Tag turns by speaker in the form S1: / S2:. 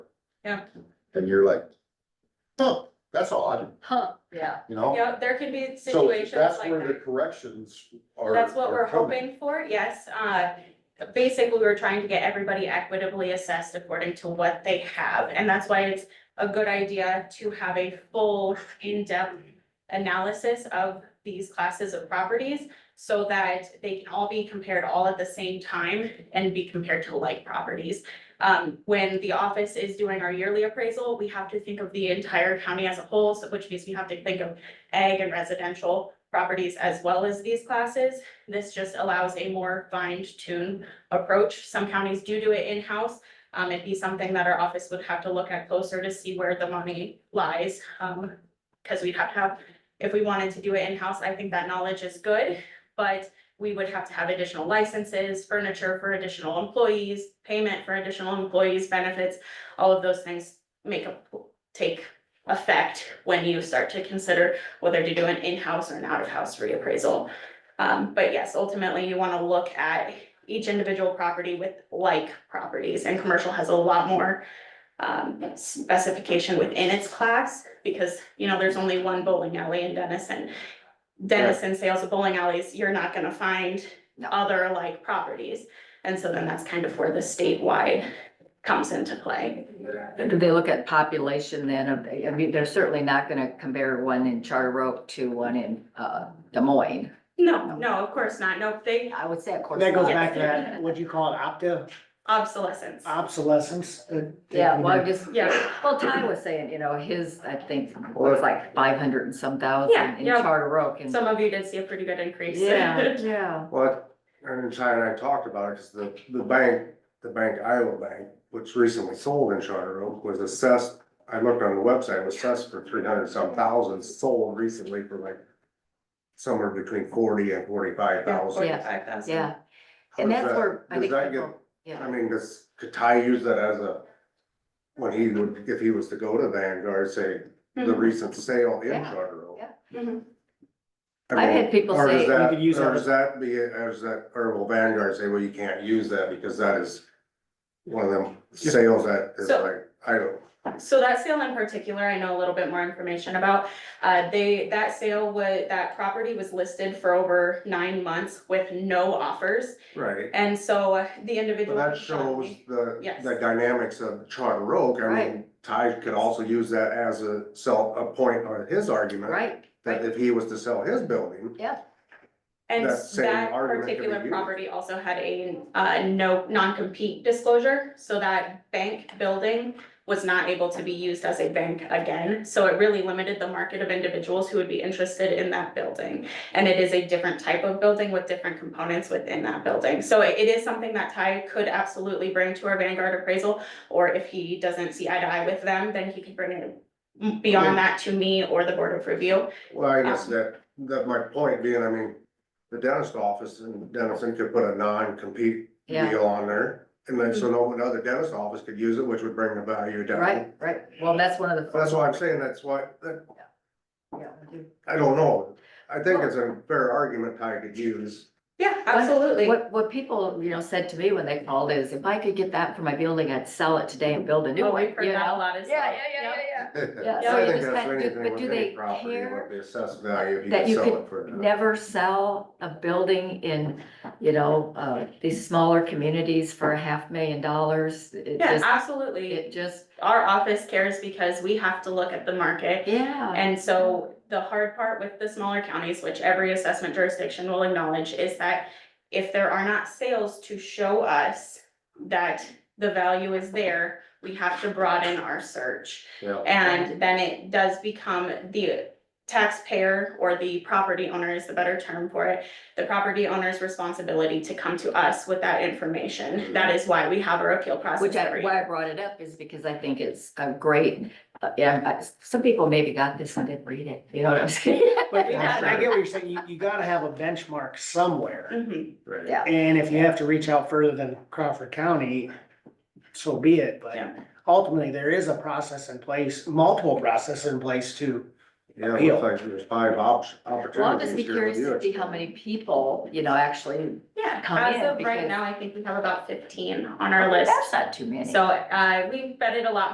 S1: Yeah.
S2: And you're like, huh, that's odd,
S3: Huh, yeah.
S2: you know?
S1: Yeah, there can be
S2: So
S1: situations
S2: that's
S1: like
S2: where the
S1: that.
S2: corrections are.
S1: That's what
S2: are
S1: we're
S2: coming.
S1: hoping for, yes. Uh, basically, we're trying to get everybody equitably assessed according to what they have. And that's why it's a good idea to have a full in-depth analysis of these classes of properties so that they can all be compared all at the same time and be compared to like properties. Um, when the office is doing our yearly appraisal, we have to think of the entire county as a whole, so which means we have to think of ag and residential properties as well as these classes. This just allows a more fine-tuned approach. Some counties do do it in-house. Um, it'd be something that our office would have to look at closer to see where the money lies. Um, because we'd have to have, if we wanted to do it in-house, I think that knowledge is good, but we would have to have additional licenses, furniture for additional employees, payment for additional employees, benefits, all of those things make a, take effect when you start to consider whether to do an in-house or an out-of-house reappraisal. Um, but yes, ultimately, you wanna look at each individual property with like properties, and commercial has a lot more um, specification within its class, because, you know, there's only one bowling alley in Denison. Denison sales of bowling alleys, you're not gonna find other like properties, and so then that's kind of where the statewide comes into play.
S3: Do they look at population then? of- I mean, they're certainly not gonna compare one in Charter Oak to one in, uh, Des Moines.
S1: No, no, of course not, no, they,
S3: I would say, of course.
S4: That goes
S3: not.
S4: back to that, what do you call it, opto,
S1: obsolescence,
S3: Um,
S4: obsolescence? uh,
S3: Yeah, well, I'm just,
S1: yeah.
S3: well, Ty was saying, you know, his, I think, was like five hundred and some
S1: Yeah,
S3: thousand in
S1: yeah.
S3: Charter Oak and.
S1: Some of you did see a pretty good increase.
S3: Yeah, yeah.
S5: Well, and Ty and I talked about it, because the, the bank, the bank Iowa Bank, which recently sold in Charter Oak, was assessed, I looked on the website, was assessed for three hundred some thousand, sold recently for like somewhere between forty and forty-five thousand.
S3: Yeah.
S1: Forty-five thousand.
S3: Yeah, and that's where I
S5: Does
S3: think
S5: that get,
S3: people,
S5: I
S3: yeah,
S5: mean, does, could Ty use that as a, when he would, if he was to go to Vanguard, say, the
S1: Mm-hmm,
S5: recent sale in
S3: Mm-hmm. Yeah,
S5: Charter Oak?
S3: yeah.
S1: Mhm.
S5: I
S3: I've
S5: mean,
S3: had people
S5: Or
S3: say-
S5: does that,
S4: You could use
S5: or
S4: that
S5: does that be, or does that, or will Vanguard say, well, you can't use that because that is one of them sales that is
S1: So-
S5: like, I don't,
S1: So that sale in particular, I know a little bit more information about. Uh, they, that sale was, that property was listed for over nine months with no offers.
S5: right?
S1: And so uh, the
S5: But
S1: individual.
S5: that shows the,
S1: Yes.
S5: the dynamics of Charter Oak. I mean,
S3: Right.
S5: Ty could also use that as a self, a point on his argument.
S3: right,
S5: That if he was to sell his building,
S1: And
S5: that same
S1: that
S5: argument could be
S1: particular
S5: used.
S1: property also had a, uh, no, non-compete disclosure, so that bank building was not able to be used as a bank again, so it really limited the market of individuals who would be interested in that building. And it is a different type of building with different components within that building, so it it is something that Ty could absolutely bring to our Vanguard appraisal. Or if he doesn't see eye to eye with them, then he could bring it beyond that to me or the Board of Review.
S5: well, I guess
S1: Um.
S5: that, that my point being, I mean, the dentist office in Dennison could put a non-compete
S3: yeah, Hmm.
S5: deal on there. And then, so no another dentist office could use it, which would bring the value down.
S3: right, right. Well, that's one of the.
S5: But That's why I'm saying, that's why, that,
S3: Yeah.
S5: I don't know. I think it's a fair argument Ty could use.
S1: Yeah,
S3: What-
S1: absolutely.
S3: What, what people, you know, said to me when they called is, if I could get that for my building, I'd sell it today and build a new
S1: Oh,
S3: one,
S1: we've
S3: you
S1: heard that a
S3: know?
S1: lot as well. Yep.
S3: yeah.
S5: I
S3: Yeah, so you
S5: think
S3: just
S5: that's
S3: gotta do-
S5: anything
S3: but
S5: with
S3: do
S5: any
S3: they
S5: property,
S3: care
S5: what The assessed value, if you
S3: that
S5: could
S3: you
S5: sell
S3: could
S5: it for. uh, enough.
S3: Never sell a building in, you know, uh, these smaller communities for a half million dollars. It
S1: Yeah,
S3: just,
S1: absolutely.
S3: it just,
S1: Our office cares because we have to look at the market.
S3: yeah,
S1: And so the hard part with the smaller counties, which every assessment jurisdiction will acknowledge, is that if there are not sales to show us that the value is there, we have to broaden our search.
S5: Yeah.
S1: And then it does become the taxpayer or the property owner is the better term for it. The property owner's responsibility to come to us with that information. That is why we have our appeal process.
S3: Mm-hmm. which I,
S1: every
S3: why I brought it up is because I think it's a great, uh, yeah, I- some people maybe got this and didn't read it, you know what I'm saying?
S4: But
S1: Yeah.
S4: I get what you're saying, you, you gotta have a benchmark somewhere.
S1: Mhm.
S5: Right.
S3: Yeah.
S4: And if you have to reach out further than Crawford County, so be it, but
S1: Yeah.
S4: ultimately, there is a process in place, multiple processes in place to
S5: Yeah, it
S4: Appeal.
S5: looks like there's five op- opportunities.
S3: Well, I'll just be
S5: here to
S3: curious
S5: do
S3: to
S5: it.
S3: see how many people, you know, actually.
S1: Yeah,
S3: Come in,
S1: as of right
S3: because-
S1: now, I think we have about fifteen on our list.
S3: That's not too many.
S1: So, uh, we've vetted a lot